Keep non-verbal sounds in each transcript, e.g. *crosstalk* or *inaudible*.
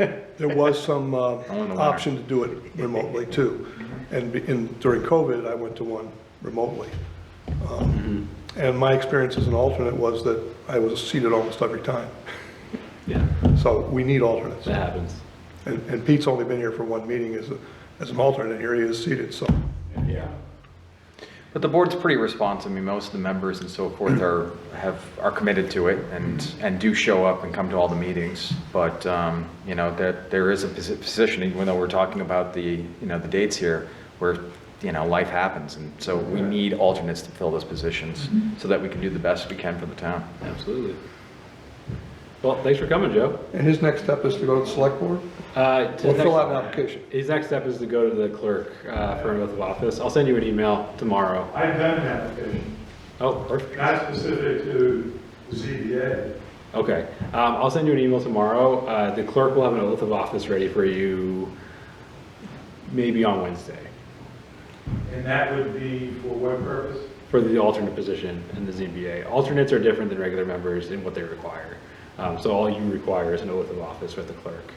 There was some uh, Only the winner. option to do it remotely too. And be- and during COVID, I went to one remotely. Um, Mm-hmm. And my experience as an alternate was that I was seated almost every time. Yeah, So we need alternates. that happens. And and Pete's only been here for one meeting as, a- as an alternate, here he is seated, so. Yeah. But the board's pretty responsive. I mean, most of the members and so forth are, have, are committed to it and, and do show up and come to all the meetings. But, um, you know, that there is a posi- position, even though we're talking about the, you know, the dates here, where, you know, life happens. And so we need alternates to fill those positions so that we can do the best we can for the town. Absolutely. Well, thanks for coming, Joe. And his next step is to go to the select board? Uh, to We'll the fill next- out an application. His next step is to go to the clerk uh, for an oath of office. I'll send you an email tomorrow. I've done an application, Oh, perfect. not specific to the ZBA. Okay. Um, I'll send you an email tomorrow. Uh, The clerk will have an oath of office ready for you maybe on Wednesday And that would be for what purpose? for the alternate position in the ZBA. Alternates are different than regular members in what they require. Um, So all you require is an oath of office with the clerk.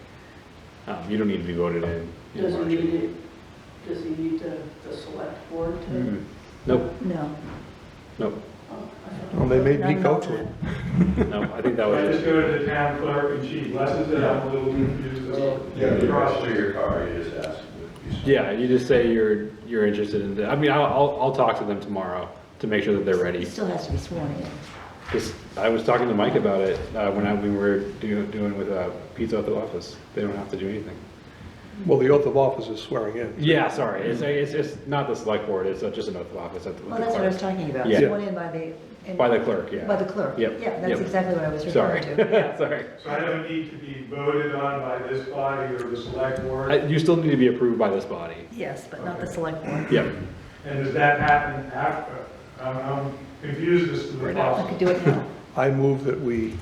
Um, You don't need to be voted in. in Does he March. need it, does he need the, the select board to? Mm. Nope, No. nope, Oh, I thought- Well, they made not Pete an go to it. alternate. no, I think that I was just go to the town clerk and she blesses it, I'm a little confused. Oh, about the process. your car, you just ask them to be- Yeah, you just say you're, you're interested in, the- I mean, I'll, I'll, I'll talk to them tomorrow to make sure that they're He ready. still has to be sworn in. 'Cause I was talking to Mike about it, uh, when I, we were do- doing with, uh, pizza at the office. They don't have to do anything. Well, the oath of office is swearing in. Yeah, sorry, it's, it's, it's not the select board, it's just an oath of office at the. with Well, the that's what I clerk. was talking about, Yeah. sworn in by the. in- By the clerk, yeah. By the clerk. Yep, Yeah, that's yep. exactly what I was Sorry, *laughs* *laughs* referring to. sorry. So I don't need to be voted on by this body or the select I- board? You still need to be approved by this body. Yes, but not the select board. Yep, And does that happen after? I'm, I'm confused as to the Right now. I could process. do it now. I move that we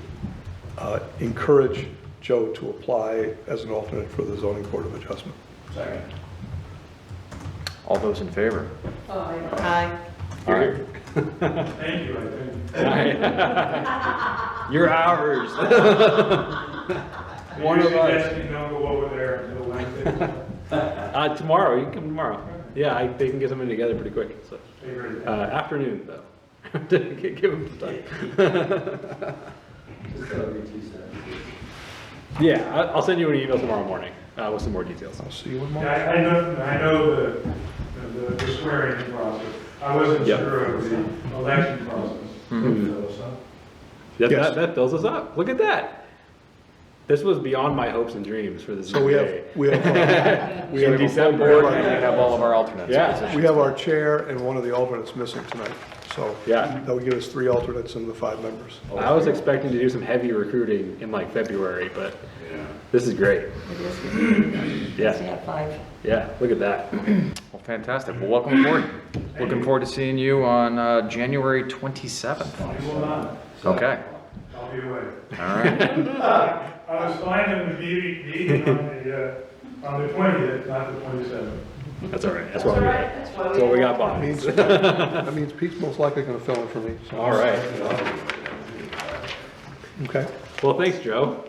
uh, encourage Joe to apply as an alternate for the zoning board of adjustment. Second. All those in favor? Aye. Aye. All right. Thank you, I think. you're ours. One of Usually us. that's- you don't go over there until Wednesday. Uh, tomorrow, you can come tomorrow. Yeah, I, they can get something together pretty quick, so. Figure it Uh, out. afternoon, though. *laughs* Give them some time. Just gotta be two seconds. Yeah, I, I'll send you an email tomorrow morning, uh, with some more details. I'll see you in Yeah, March. I I know, I know the- the, the swearing process. I wasn't Yep. sure of the election process. Yes. That, that, that fills us up. Look at that. This was beyond my hopes and dreams for this So we have, day. we have, uh, we In have, December. We have all of our alternates. Yeah. we have our chair and one of the alternates missing tonight. So Yeah. that would give us three alternates and the five members. I was expecting to do some heavy recruiting in like February, but this is great. It is good. We Yeah, have five. yeah, look at that. Well, fantastic. Well, welcome aboard. Looking forward to seeing you on, uh, January 27th. I will not, Okay, I'll be away. all right. I was fine in the meeting, meeting on the, uh, on the twentieth, not the twenty-seventh. That's all right. That's That's what all we right, got. that's why we. That's what we got, That Bob. means, that means Pete's most likely going to fill in for me, so, *laughs* All right. okay? Well, thanks, Joe.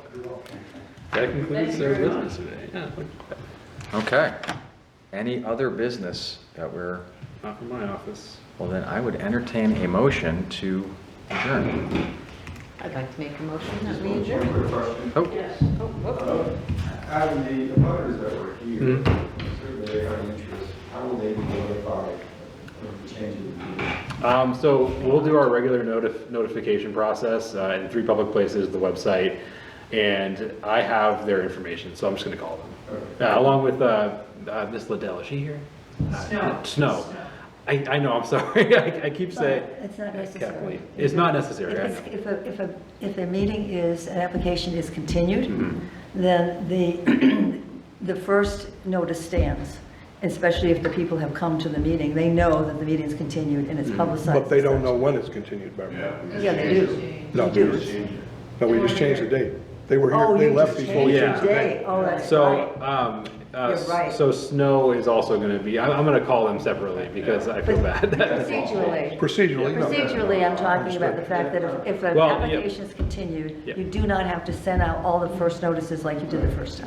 That concludes our business today. Yeah, Okay. Any other business that we're, not from my office. well, then I would entertain a motion to adjourn. I'd like to make a motion that we Just one quick question. Oh, Yes. Out of the abutters that were here, survey our interest, how will they be notified of the change of the meeting? Um, so we'll do our regular notif- notification process, uh, in three public places, the website, and I have their information, so I'm just gonna call them. Uh, along with, uh, uh, Ms. Liddell, is she here? Uh, Snow. Snow. I, I know, I'm *laughs* sorry, I, I keep saying. It's not necessary. Kathleen. It's not necessary, I If, know. if a, if a, if a meeting is, an application is continued, Mm-hmm. then the, *clears throat* the first notice stands, especially if the people have come to the meeting. They know that the meeting's continued and Mm-hmm. it's publicized. But they don't know when it's continued, remember? Yeah, they do. No, They do. No, we just changed the date. They were Oh, here, they you left just before we changed changed the it. date. Today, oh, that's right. So, um, uh, You're right. so Snow is also gonna be, I'm, I'm gonna call them separately because I feel bad. Procedurally, Procedurally, no. procedurally, I'm talking about the fact that if- if an Well, yeah. application is continued, Yeah. you do not have to send out all the first notices like you did the first time.